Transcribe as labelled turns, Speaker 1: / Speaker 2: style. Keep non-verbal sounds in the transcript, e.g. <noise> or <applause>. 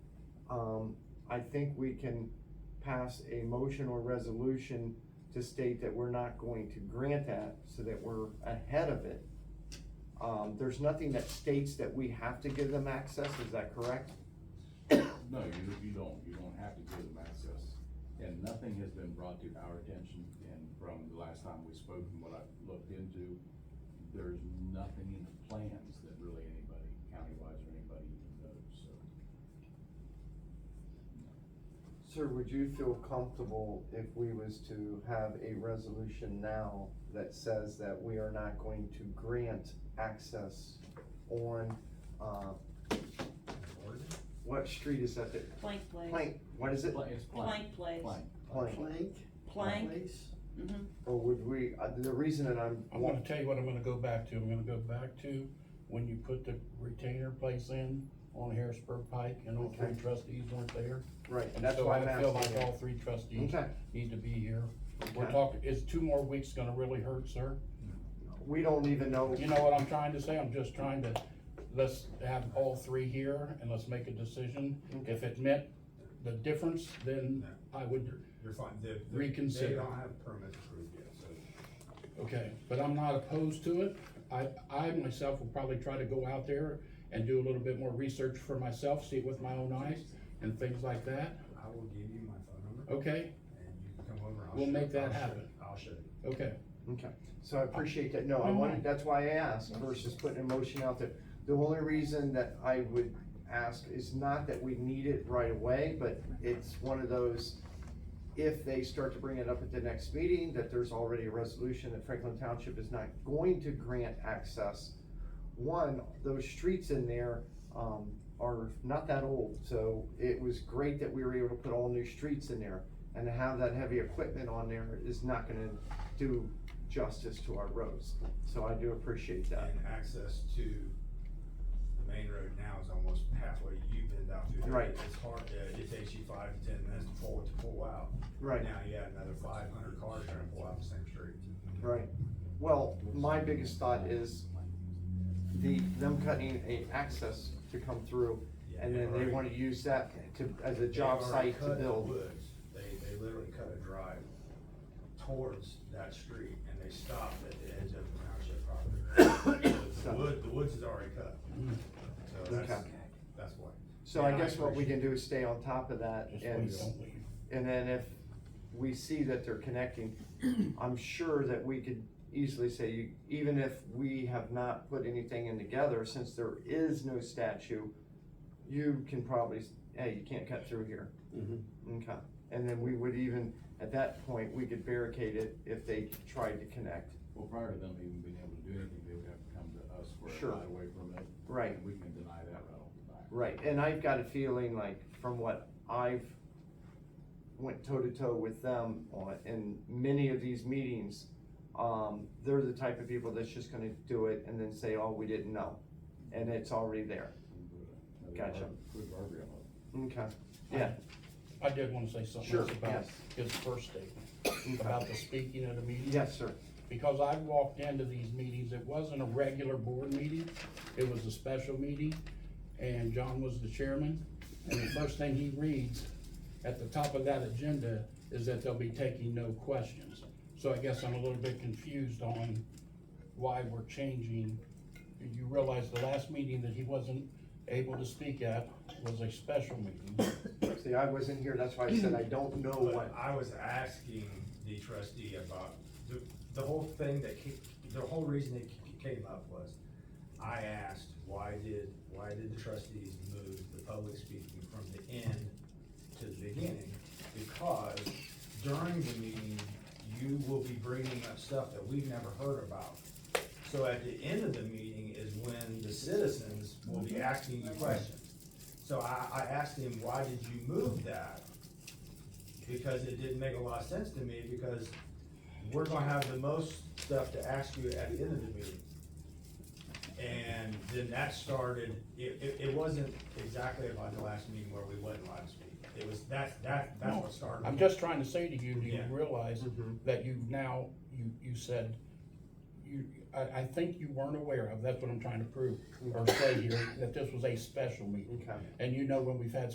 Speaker 1: Um, I think we can pass a motion or resolution to state that we're not going to grant that, so that we're ahead of it. Um, there's nothing that states that we have to give them access, is that correct?
Speaker 2: No, you, you don't, you don't have to give them access, and nothing has been brought to our attention, and from the last time we spoke and what I've looked into, there's nothing in the plans that really anybody, county-wise or anybody even knows, so.
Speaker 1: Sir, would you feel comfortable if we was to have a resolution now that says that we are not going to grant access on, uh, what street is that, that,
Speaker 3: Plank place,
Speaker 1: Plank, what is it?
Speaker 2: Pla- It's plain,
Speaker 3: plank place,
Speaker 2: plain.
Speaker 1: Plank,
Speaker 4: Plank.
Speaker 3: plank,
Speaker 4: Place.
Speaker 3: mhm,
Speaker 1: or would we, uh, the reason that I'm,
Speaker 5: I'm gonna tell you what I'm gonna go back to, I'm gonna go back to when you put the retainer place in on Harrisburg Pike and all three
Speaker 1: Okay.
Speaker 5: trustees weren't there.
Speaker 1: right,
Speaker 5: And
Speaker 1: that's
Speaker 5: so
Speaker 1: why I'm
Speaker 5: I feel like
Speaker 1: asking.
Speaker 5: all three trustees
Speaker 1: Okay,
Speaker 5: need to be here. We're
Speaker 1: Okay.
Speaker 5: talking, is two more weeks gonna really hurt, sir?
Speaker 1: we don't even know,
Speaker 5: You know what I'm trying to say, I'm just trying to, let's have all three here and let's make a decision.
Speaker 1: Okay.
Speaker 5: If it meant the difference, then I would,
Speaker 6: You're fine, they, they-
Speaker 5: Reconsider.
Speaker 6: They don't have permits approved yet, so.
Speaker 5: Okay, but I'm not opposed to it. I, I myself will probably try to go out there and do a little bit more research for myself, see it with my own eyes and things like that.
Speaker 6: I will give you my phone number
Speaker 5: Okay,
Speaker 6: and you can come over. and I'll
Speaker 5: We'll
Speaker 6: show-
Speaker 5: make that
Speaker 6: I'll show-
Speaker 5: happen.
Speaker 6: I'll show you.
Speaker 5: okay.
Speaker 1: okay, so I appreciate that, no, I
Speaker 5: No, no.
Speaker 1: wanted, that's why I asked, versus putting a motion out there. The only reason that I would ask is not that we need it right away, but it's one of those, if they start to bring it up at the next meeting, that there's already a resolution that Franklin Township is not going to grant access. One, those streets in there, um, are not that old, so it was great that we were able to put all new streets in there. And to have that heavy equipment on there is not gonna do justice to our roads, so I do appreciate that.
Speaker 6: And access to the main road now is almost halfway you've been down to.
Speaker 1: Right.
Speaker 6: It's hard, to- it takes you five to ten minutes to pull, to pull out.
Speaker 1: Right.
Speaker 6: Now you have another five hundred cars trying to pull out the same street.
Speaker 1: Right. Well, my biggest thought is the, them cutting a access to come through, and then they wanna use that to, as a
Speaker 6: They've
Speaker 1: job
Speaker 6: already
Speaker 1: site to
Speaker 6: cut
Speaker 1: build.
Speaker 6: woods. They, they literally cut a drive towards that street and they stopped at the edge of the township property. <coughs> The wood, the woods is already cut. So that's,
Speaker 1: Mm-hmm. Okay.
Speaker 6: that's why.
Speaker 1: So I
Speaker 6: Yeah, I
Speaker 1: guess what we can do is stay on top of that
Speaker 5: Just
Speaker 1: and,
Speaker 5: please don't leave.
Speaker 1: and then if we see that they're connecting, I'm sure that we could easily say, you- even if we have not put anything in together, since there is no statue, you can probably, s- hey, you can't cut through here. Okay, and then we would even, at that point, we could barricade it if they tried to connect.
Speaker 2: Well, prior to them even being able to do anything, they would have to come to us for a
Speaker 1: Sure.
Speaker 2: right away permit.
Speaker 1: Right.
Speaker 2: And we can deny that right off the bat.
Speaker 1: Right, and I've got a feeling like from what I've went toe to toe with them on, in many of these meetings, um, they're the type of people that's just gonna do it and then say, oh, we didn't know, and it's already there.
Speaker 2: We can put a-
Speaker 1: Gotcha.
Speaker 2: Put a guardrail up.
Speaker 1: Okay, yeah,
Speaker 5: I did wanna say something
Speaker 1: Sure,
Speaker 5: else about
Speaker 1: yes.
Speaker 5: his first statement,
Speaker 1: okay,
Speaker 5: about the speaking at a meeting.
Speaker 1: yes, sir,
Speaker 5: because I walked into these meetings, it wasn't a regular board meeting, it was a special meeting, and John was the chairman, and the first thing he reads at the top of that agenda is that they'll be taking no questions. So I guess I'm a little bit confused on why we're changing. You realize the last meeting that he wasn't able to speak at was a special meeting.
Speaker 1: see, I wasn't here, that's why I said I don't know
Speaker 6: But
Speaker 1: what,
Speaker 6: I was asking the trustee about, the, the whole thing that, ca- the whole reason it ca- came up was, I asked, why did, why did the trustees move the public speaking from the end to the beginning? Because during the meeting, you will be bringing up stuff that we've never heard about. So at the end of the meeting is when the citizens will
Speaker 1: Mm-hmm.
Speaker 6: be asking you questions. So I, I asked him, why did you move that? because it didn't make a lot of sense to me, because we're gonna have the most stuff to ask you at the end of the meeting. And then that started, it, it, it wasn't exactly about the last meeting where we wasn't allowed to speak. It was, that, that, that's what started.
Speaker 5: I'm just trying to say to you, do you
Speaker 6: Yeah.
Speaker 5: realize
Speaker 1: Mhm.
Speaker 5: that you now, you, you said, you, I, I think you weren't aware of, that's what I'm trying to prove, or say here, that this was a special meeting.
Speaker 1: okay.
Speaker 5: And you know, when we've had